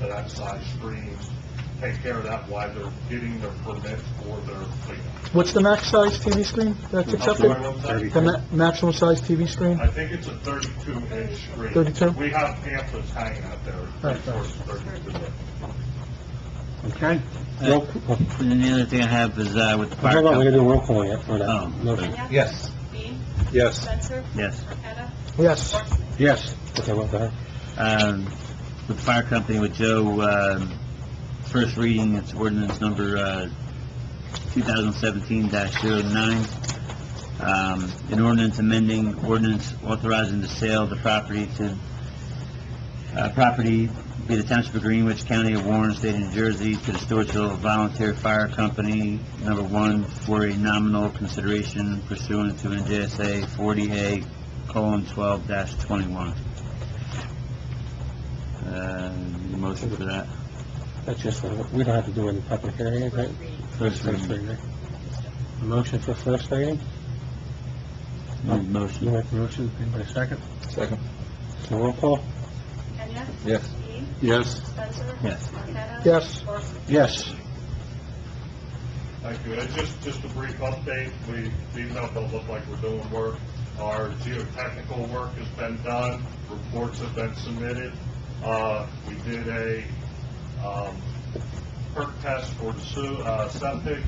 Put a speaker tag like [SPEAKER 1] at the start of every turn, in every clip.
[SPEAKER 1] to that side stream, take care of that while they're getting their permits for their cleanup.
[SPEAKER 2] What's the max size TV screen that's accepted? The ma- maximum size TV screen?
[SPEAKER 1] I think it's a thirty-two inch screen.
[SPEAKER 2] 32?
[SPEAKER 1] We have pamphlets hanging out there,
[SPEAKER 2] Right,
[SPEAKER 1] of course, thirty-two.
[SPEAKER 3] Okay.
[SPEAKER 4] Uh,
[SPEAKER 3] Roll- oh,
[SPEAKER 4] And the other thing I have is, uh, with the fire
[SPEAKER 3] Hold on, we're gonna do a
[SPEAKER 4] company,
[SPEAKER 3] roll call yet for
[SPEAKER 4] Oh.
[SPEAKER 3] that motion.
[SPEAKER 5] Kenya?
[SPEAKER 3] Yes.
[SPEAKER 5] Dean?
[SPEAKER 3] Yes.
[SPEAKER 5] Spencer?
[SPEAKER 4] yes,
[SPEAKER 5] Marqueta?
[SPEAKER 2] Yes.
[SPEAKER 3] Yes. Okay, well, go ahead.
[SPEAKER 4] um, with the fire company with Joe, um, first reading, it's ordinance number, uh, 2017-09, um, an ordinance amending ordinance authorizing the sale of the property to, uh, property be the Township of Greenwich, County of Warren, State of New Jersey, to the Stewartsville Volunteer Fire Company, number one, for a nominal consideration pursuant to NJSA 40A colon 12 dash 21. Uh, motion for that?
[SPEAKER 3] That's just, for- we don't have to do any public hearing, right?
[SPEAKER 4] First reading.
[SPEAKER 3] reading. A motion for first reading?
[SPEAKER 4] Need
[SPEAKER 3] You
[SPEAKER 4] Motion.
[SPEAKER 3] make the motion, anybody second?
[SPEAKER 6] Second.
[SPEAKER 3] So roll call?
[SPEAKER 5] Kenya?
[SPEAKER 6] Yes.
[SPEAKER 5] Dean?
[SPEAKER 3] Yes.
[SPEAKER 5] Spencer?
[SPEAKER 4] Yes.
[SPEAKER 5] Marqueta?
[SPEAKER 2] Yes.
[SPEAKER 5] Horst?
[SPEAKER 3] Yes.
[SPEAKER 1] Thank you. And just, just a brief update, we, even though it don't look like we're doing work, our geotechnical work has been done, reports have been submitted. Uh, we did a, um, perk test for the su, uh, septic.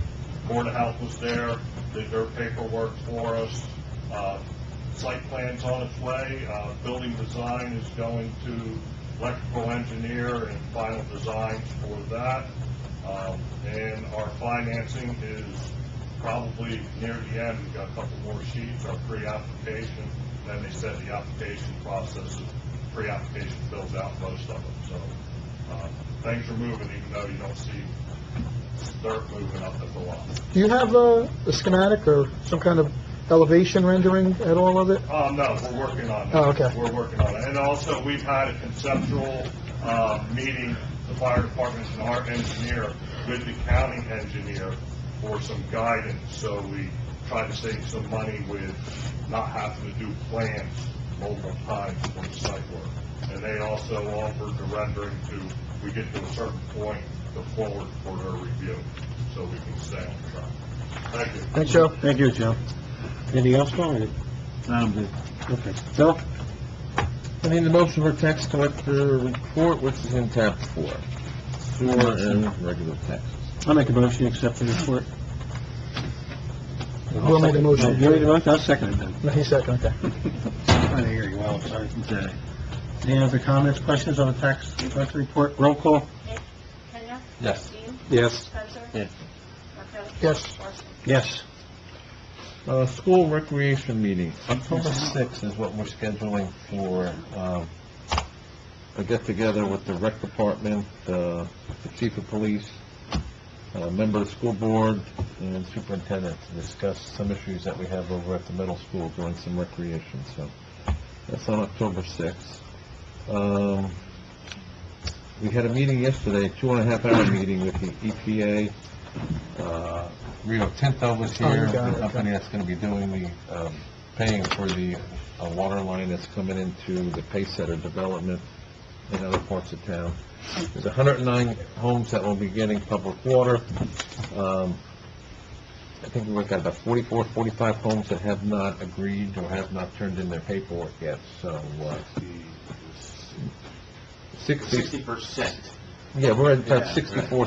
[SPEAKER 1] Board of Health was there, did their paperwork for us. Uh, site plan's on its way, uh, building design is going to electrical engineer and final designs for that. Um, and our financing is probably near the end, we've got a couple more sheets, our pre-application. Then they said the application process, is pre-application fills out most of them, so, uh, things are moving, even though you don't see dirt moving up at the lot.
[SPEAKER 2] Do you have a a schematic or some kind of elevation rendering at all of it?
[SPEAKER 1] Uh, no, we're working on that.
[SPEAKER 2] Oh, okay.
[SPEAKER 1] We're working on it. And also, we've had a conceptual, uh, meeting, the fire department and our engineer with the county engineer for some guidance, so we try to save some money with not having to do plans multiple times for the site work. And they also offered the rendering to, we get to a certain point, the forward for their review, so we can stay on track. Thank you.
[SPEAKER 2] Thanks, Joe.
[SPEAKER 3] Thank you, Joe. Anything else, Tom?
[SPEAKER 4] I'm good.
[SPEAKER 3] Okay. Bill?
[SPEAKER 6] I need a motion for tax collector report, which is in tab four. Sewer and regular taxes.
[SPEAKER 3] I make a motion, to accept the report.
[SPEAKER 2] We'll make a motion.
[SPEAKER 3] You made the motion, I'll second it then.
[SPEAKER 2] No, he's second, okay.
[SPEAKER 3] Trying to hear you well, sorry.
[SPEAKER 4] Okay.
[SPEAKER 3] Any other comments, questions on the tax collector report? Roll call?
[SPEAKER 5] Kenya?
[SPEAKER 6] Yes.
[SPEAKER 5] Dean?
[SPEAKER 3] Yes.
[SPEAKER 5] Spencer?
[SPEAKER 4] Yes.
[SPEAKER 5] Marqueta?
[SPEAKER 2] Yes.
[SPEAKER 5] Horst?
[SPEAKER 3] Yes.
[SPEAKER 6] Uh, school recreation meeting, October sixth is what we're scheduling for, um, a get-together with the rec department, uh, the chief of police, a member of the school board, and superintendent to discuss some issues that we have over at the middle school during some recreation, so that's on October sixth. Um, we had a meeting yesterday, a two and a half hour meeting with the EPA. Uh, Rio Tinto was
[SPEAKER 2] Oh, you
[SPEAKER 6] here,
[SPEAKER 2] got it,
[SPEAKER 6] the
[SPEAKER 2] okay.
[SPEAKER 6] company that's gonna be doing the, um, paying for the, uh water line that's coming into the Paysetter development in other parts of town. There's hundred and nine homes that will be getting public water. Um, I think we've got about 44, 45 homes that have not agreed or have not turned in their paperwork yet, so, uh, sixty,
[SPEAKER 7] Sixty percent.
[SPEAKER 6] yeah, we're at about
[SPEAKER 7] 64,
[SPEAKER 6] 64,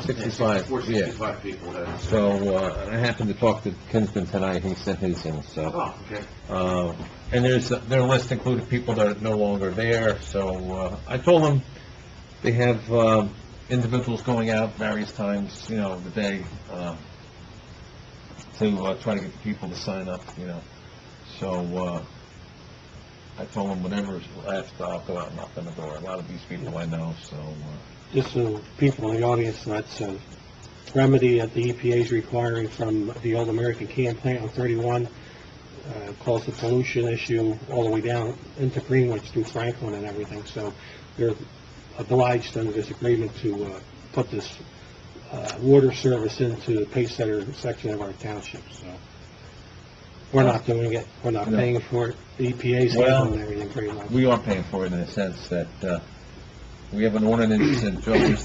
[SPEAKER 6] 65, yeah.
[SPEAKER 7] sixty-five people have.
[SPEAKER 6] So, uh, I happened to talk to Kinsman tonight, he sent his in, so.
[SPEAKER 7] Oh, okay.
[SPEAKER 6] Uh, And there's, their list included people that are no longer there, so uh, I told them they have uh, individuals going out various times, you know, of the day, uh, to uh, try to get people to sign up, you know. So uh, I told them whenever's left, I'll go out and knock on the door. A lot of these people I know, so, uh,
[SPEAKER 3] Just so people in the audience, that's a remedy that the EPA is requiring from the old American can plant on 31, uh, caused the pollution issue all the way down into Greenwich through Franklin and everything, so they're obliged under this agreement to uh, put this uh, water service into the Paysetter section of our township, so we're not doing it, we're not
[SPEAKER 6] No.
[SPEAKER 3] paying for it, The E EPA's
[SPEAKER 6] Well,
[SPEAKER 3] handling everything pretty much.
[SPEAKER 6] we are paying for it in a sense that uh, we have an ordinance in Joe's